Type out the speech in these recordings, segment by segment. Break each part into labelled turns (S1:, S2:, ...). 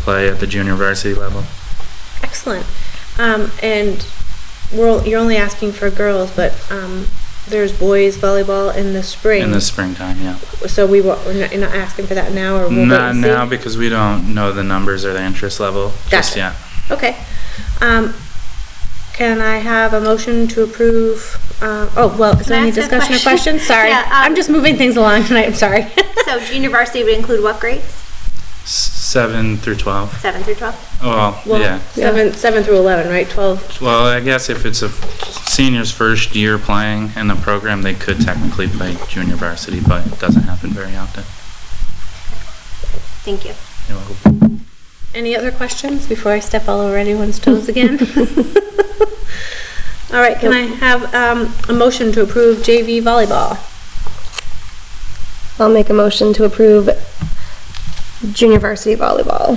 S1: play at the junior varsity level.
S2: Excellent. Um, and we're, you're only asking for girls, but um, there's boys volleyball in the spring.
S1: In the springtime, yeah.
S2: so we wa- we're not, you're not asking for that now, or we'll
S1: Not
S2: wait and see?
S1: now because we don't know the numbers or the interest level just
S2: Gotcha.
S1: yet.
S2: Okay. Um, can I have a motion to approve? Uh, oh well, is
S3: Can
S2: there
S3: I
S2: any
S3: ask a
S2: discussion or
S3: question?
S2: questions? Sorry,
S3: Yeah, um,
S2: I'm just moving things along tonight. I'm sorry.
S3: So junior varsity would include what grades?
S1: S- Seven through 12.
S3: Seven through 12?
S1: Well,
S2: well,
S1: yeah.
S2: seven seven through eleven, right? Twelve.
S1: Well, I guess if it's a f- senior's first year playing in the program, they could technically play junior varsity, but it doesn't happen very often.
S3: Thank you.
S1: You know,
S2: Any other questions before I step all over anyone's toes again? all right. Can I have um, a motion to approve JV volleyball?
S4: I'll make a motion to approve junior varsity volleyball.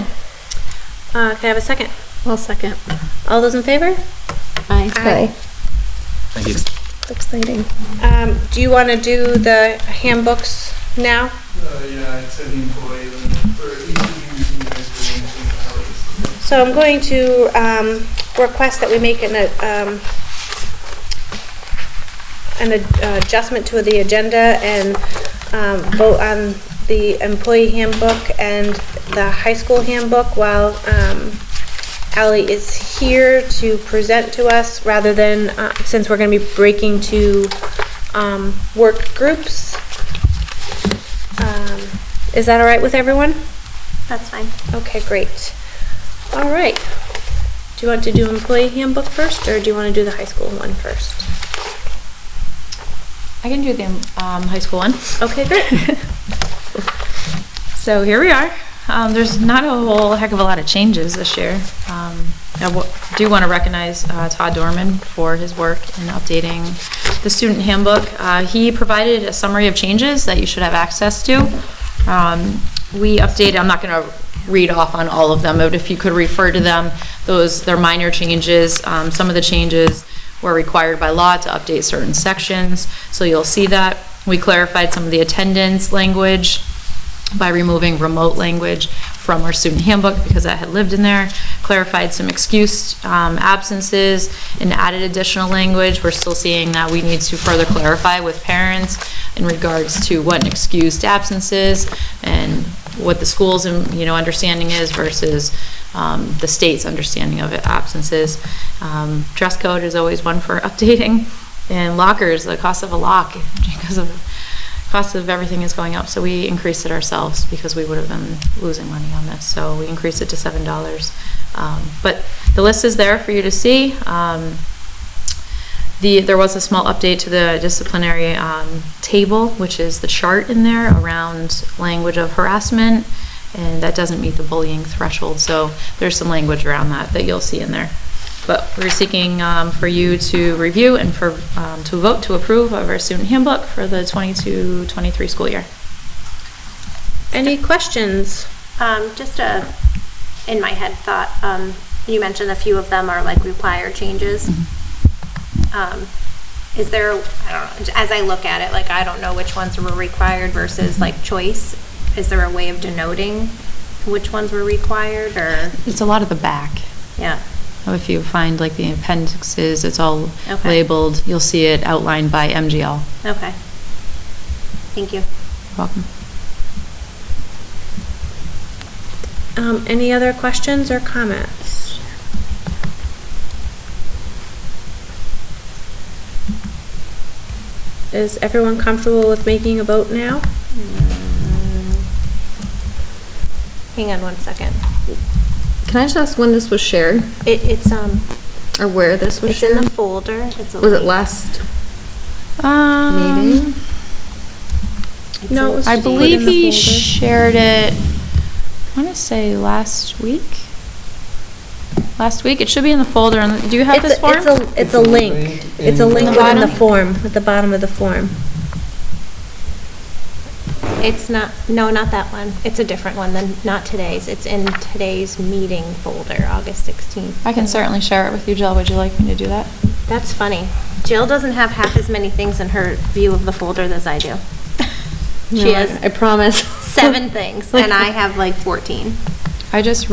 S2: Uh, can I have a second?
S5: I'll second.
S2: All those in favor?
S5: Aye.
S4: Okay,
S1: Thank you.
S4: exciting.
S2: Um, do you want to do the handbooks now?
S6: Uh, yeah, it's an employee, or easy to use in high school, and hours.
S2: So I'm going to um, request that we make an, uh, um, an ad- uh, adjustment to the agenda and um, vote on the employee handbook and the high school handbook while um, Ally is here to present to us rather than, uh, since we're going to be breaking to um, work groups. Um, Is that all right with everyone?
S3: That's fine.
S2: Okay, great. All right. Do you want to do employee handbook first, or do you want to do the high school one first?
S5: I can do the um, high school one.
S2: Okay, great.
S5: So here we are. Um, there's not a whole heck of a lot of changes this year. Um, I w- do want to recognize uh, Todd Dorman for his work in updating the student handbook. Uh, he provided a summary of changes that you should have access to. Um, we updated, I'm not going to read off on all of them, but if you could refer to them, those, they're minor changes. Um, some of the changes were required by law to update certain sections, so you'll see that. We clarified some of the attendance language by removing remote language from our student handbook because that had lived in there, clarified some excused um, absences, and added additional language. We're still seeing that we need to further clarify with parents in regards to what an excused absence is and what the school's, um, you know, understanding is versus um, the state's understanding of absences. Um, Dress code is always one for updating, and lockers, the cost of a lock because of cost of everything is going up, so we increased it ourselves because we would have been losing money on this. So we increased it to seven dollars. Um, but the list is there for you to see. Um, the there was a small update to the disciplinary um, table, which is the chart in there around language of harassment, and that doesn't meet the bullying threshold. So there's some language around that that you'll see in there. But we're seeking um, for you to review and for, um, to vote to approve of our student handbook for the 22-23 school year.
S2: Any questions?
S3: Um, just a, in my head thought, um, you mentioned a few of them are like required changes.
S2: Mm-hmm.
S3: Um, is there, I don't know, as I look at it, like I don't know which ones were required versus like choice. Is there a way of denoting which ones were required or,
S5: It's a lot of the back. Oh,
S3: yeah?
S5: If you find like the appendixes, it's all
S3: Okay.
S5: labeled. You'll see it outlined by MGL.
S3: Okay. Thank you.
S5: Welcome.
S2: Um, any other questions or comments? Is everyone comfortable with making a vote now? Mm. Hang on one second.
S4: Can I just ask when this was shared
S2: It, it's, um,
S4: or where this was
S3: It's in
S4: shared?
S3: the folder. It's a
S4: Was it
S3: link.
S4: last
S5: Um,
S4: meeting?
S3: It's
S2: No,
S3: a-
S2: it was
S5: I
S2: Just put
S5: believe
S2: in the
S5: he
S2: folder.
S5: shared it, I want to say last week? Last week? It should be in the folder. on the- Do you have
S2: it's,
S5: this
S2: a-
S5: form?
S2: it's a, it's a link. It's a
S6: in-
S2: link
S5: The
S2: within the
S5: bottom?
S2: form, at the bottom of the form.
S3: It's not, no, not that one. It's a different one than, not today's. It's in today's meeting folder, August 16th.
S5: I can certainly share it with you, Jill. Would you like me to do that?
S3: That's funny. Jill doesn't have half as many things in her view of the folder as I do.
S4: No,
S3: She
S4: I-
S3: has
S4: I promise.
S3: seven things, and I have like 14.
S5: I just